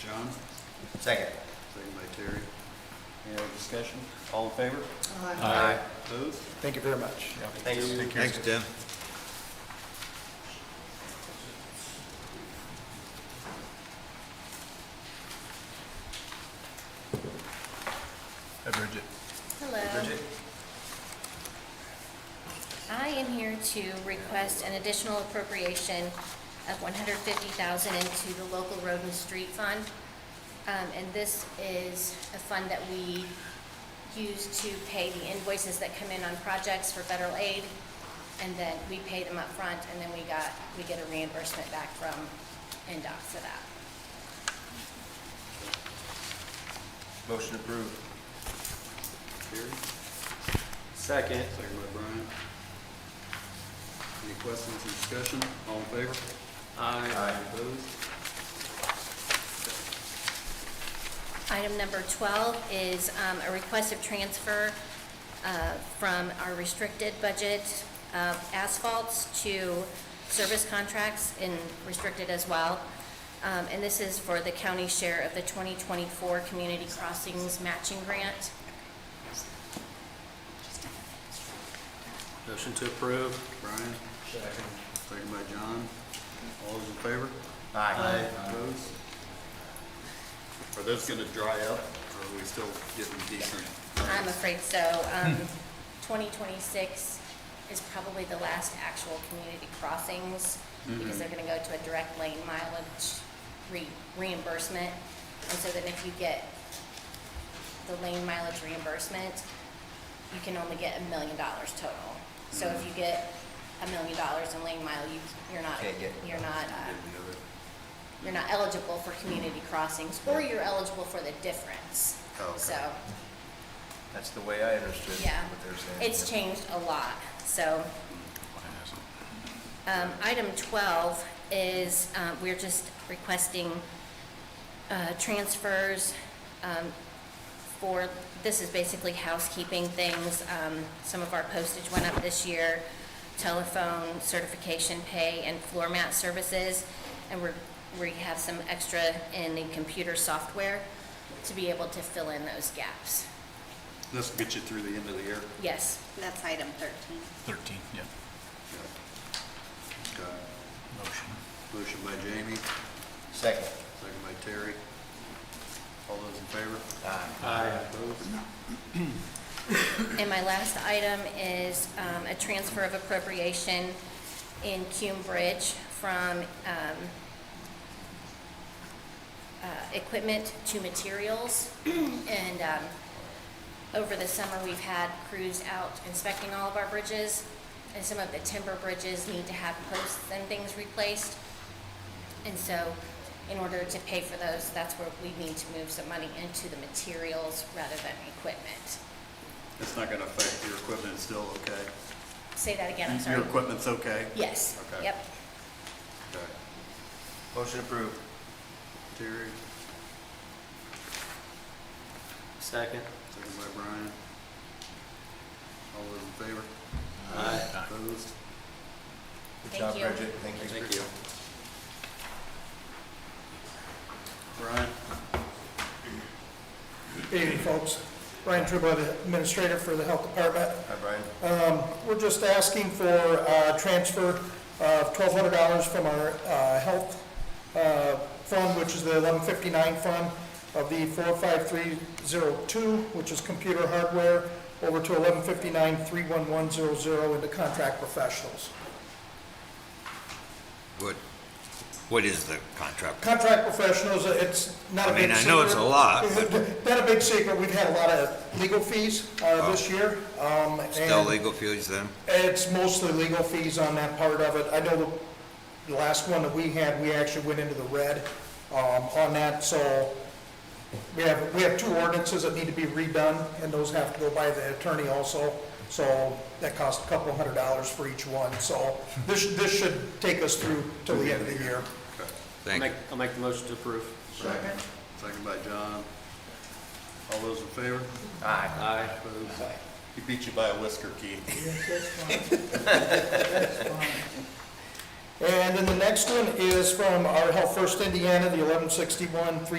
John, Second. second by Terry. Any other discussion? All in favor? Aye. Opposed? Thank you very much. Thanks. Thanks, Tim. Hi, Bridget. Hello. Bridget? I am here to request an additional appropriation of one hundred fifty thousand into the local road and street fund. Um, and this is a fund that we use to pay the invoices that come in on projects for federal aid. And then we pay them up front, and then we got, we get a reimbursement back from NDOT for that. Motion approved. Terry, Second. second by Brian. Any questions or discussion? All in favor? Aye. Opposed? Item number 12 is um, a request of transfer uh, from our restricted budget of asphalts to service contracts in restricted as well. Um, And this is for the county share of the 2024 Community Crossings Matching Grant. Motion to approve. Brian, second by John. All those in favor? Aye. Opposed? Are those gonna dry up, or are we still getting decent? I'm afraid so. Um, 2026 is probably the last actual community crossings because they're going to go to a direct lane mileage re- reimbursement. And so then if you get the lane mileage reimbursement, you can only get a million dollars total. So if you get a million dollars in lane mile, you, you're not, Can't get- you're not, uh, Getting the other- you're not eligible for community crossings or you're eligible for the difference. Oh, okay. So That's the way I understood yeah, what they're saying. it's changed a lot, so. Um, item twelve is, uh, we're just requesting, uh, transfers, um, for, this is basically housekeeping things. Um, some of our postage went up this year, telephone, certification pay, and floor mat services. And we're, we have some extra in the computer software to be able to fill in those gaps. This will get you through the end of the year. Yes, That's item 13. 13, yeah, Yeah. Okay. motion. Motion by Jamie, Second. second by Terry. All those in favor? Aye. Opposed? and my last item is um, a transfer of appropriation in Cume Bridge from um, uh, equipment to materials. And um, over the summer, we've had crews out inspecting all of our bridges, and some of the timber bridges need to have posts and things replaced. And so, in order to pay for those, that's where we need to move some money into the materials rather than equipment. It's not gonna affect your equipment, it's still okay? Say that again, I'm sorry. Your equipment's okay? Yes, Okay. yep. Okay. Motion approved. Terry, Second. second by Brian. All those in favor? Aye. Opposed? Good Thank job, you. Bridget. Thank you. Thank you. Brian? Good evening, folks. Brian Truba, the Administrator for the Health Department. Hi, Brian. We're just asking for a transfer of $1,200 from our uh, health uh, fund, which is the 1159 fund, of the 45302, which is computer hardware, over to 1159-31100 into contract professionals. What, what is the contract? Contract professionals, uh, it's not a I big mean, secret. I know it's a lot, but Not a big secret, we've had a lot of legal fees uh, this year. um, still and- legal fees then? It's mostly legal fees on that part of it. I know the- the last one that we had, we actually went into the red um, on that, so we have, we have two ordinances that need to be redone, and those have to go by the attorney also, so that costs a couple hundred dollars for each one, so this, this should take us through till the end of the year. Okay. Thank you. I'll make the motion to approve. Second. Second by John. All those in favor? Aye. Aye. Opposed? He beat you by a whisker, Keith. And then the next one is from our Health First Indiana, the eleven sixty-one, three